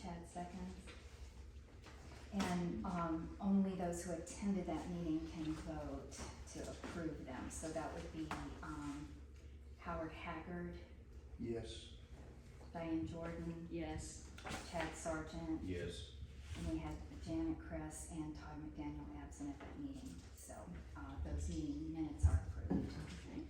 ten seconds. And, um, only those who attended that meeting can vote to approve them, so that would be, um, Howard Haggard, Yes. Diane Jordan, Yes. Chad Sargent, Yes. and we had Janet Kress and Todd McDaniel absent at that meeting, so, uh, those meeting minutes are approved. Okay.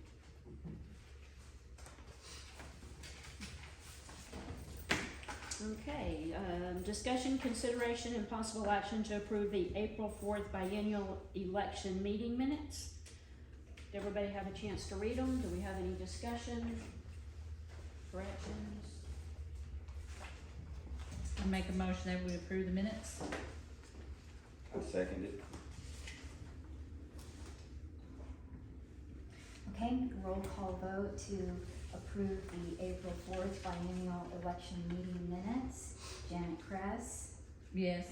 Okay, um, discussion, consideration, and possible action to approve the April fourth biennial election meeting minutes. Did everybody have a chance to read them? Do we have any discussion? Corrections? I make a motion that we approve the minutes. I second it. Okay, roll call vote to approve the April fourth biennial election meeting minutes. Janet Kress, Yes.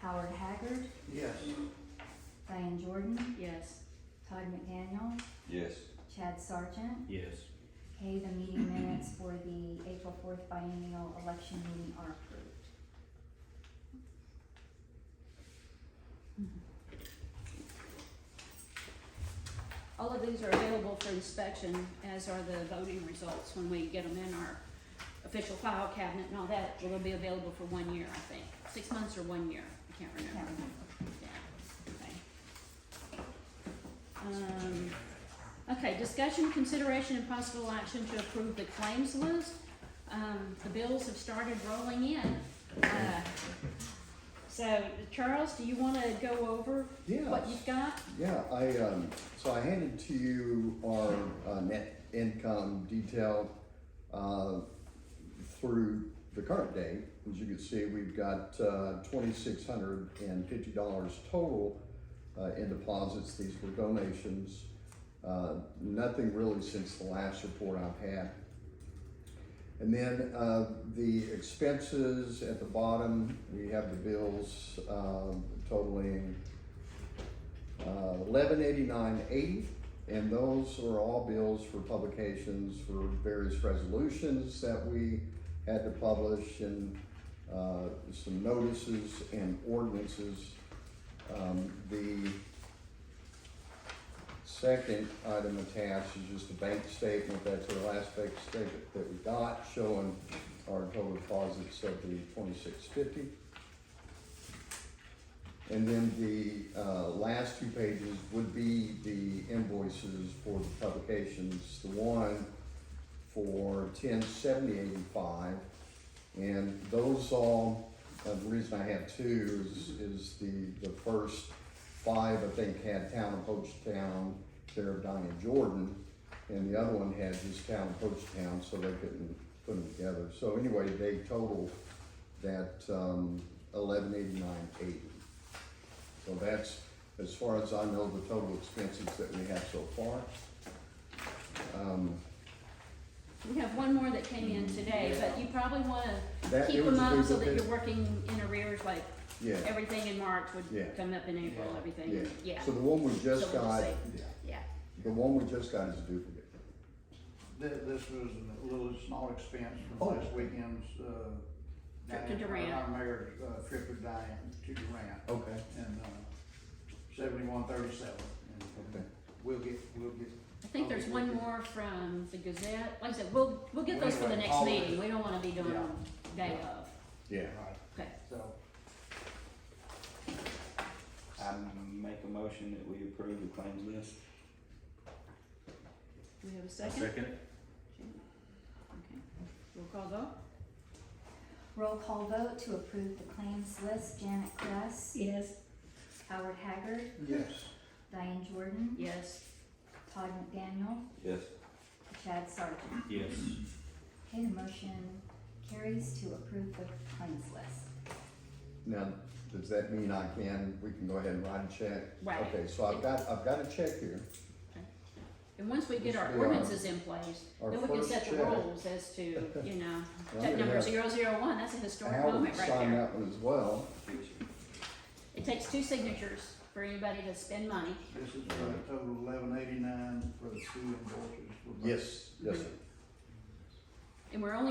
Howard Haggard, Yes. Diane Jordan, Yes. Todd McDaniel, Yes. Chad Sargent. Yes. Okay, the meeting minutes for the April fourth biennial election meeting are approved. All of these are available for inspection, as are the voting results when we get them in our official file cabinet and all that. It'll be available for one year, I think, six months or one year, I can't Can't remember. remember. Yeah, okay. Um, okay, discussion, consideration, and possible action to approve the claims list. Um, the bills have started rolling in. Uh, So, Charles, do you wanna go over what Yeah, you've got? yeah, I, um, so I handed to you our, uh, net income detail, uh, through the current day. As you can see, we've got, uh, twenty-six hundred and fifty dollars total, uh, in deposits, these were donations. Uh, nothing really since the last report I've had. And then, uh, the expenses at the bottom, we have the bills, um, totaling, Uh, eleven eighty-nine eighty, and those are all bills for publications for various resolutions that we had to publish and uh, some notices and ordinances. Um, The second item attached is just a bank statement, that's our last bank statement that we got, showing our total deposits of the twenty-six fifty. And then the uh, last two pages would be the invoices for the publications. The one for ten seventy eighty-five. And those all, uh, the reason I have two is, is the, the first five, I think, had Town of Hoachtown, care of Diane Jordan. And the other one had just Town of Hoachtown, so they couldn't put them together. So anyway, they total that um, eleven eighty-nine eighty. So that's, as far as I know, the total expenses that we have so far. Um, We have one more that came in today, but you probably wanna That- it keep was them a up big so that bit. you're working in arrears, like Yeah, everything in March Yeah. would come up in April, everything, yeah. yeah, So the one we So just we'll got, say- yeah. the one we just got is a duplicate. This, this was a little small expense Oh. from last weekend's, uh. Trip to Diane- Durant. Our mayor's, uh, trip to Diane, to Durant, Okay. and, uh, seventy-one thirty-seven. Okay. We'll get, we'll get. I think there's one more from the Gazette, like I said, we'll, we'll get those for the Anyway, next all of meeting, it. we don't wanna be doing them day Yeah. of, Yeah. Right, okay. so, I make a motion that we approve the claims list. Do we have a second? second Okay, roll call vote? Roll call vote to approve the claims list. Janet Kress, Yes. Howard Haggard, yes. Diane Jordan, Yes. Todd McDaniel, Yes. Chad Sargent. Yes. Okay, the motion carries to approve the claims list. Now, does that mean I can, we can go ahead and write a check? Right. Okay, so I've got, I've got a check here. And once we get This our will be our- ordinances in place, our then we can first set the check. rules as to, you know, I'm check gonna number have zero zero one, that's a historic Howard moment right signed there. that one as well. It takes two signatures for anybody to spend money. This is for a total of eleven eighty-nine for the two invoices. for both. Yes, yes, sir. And we're only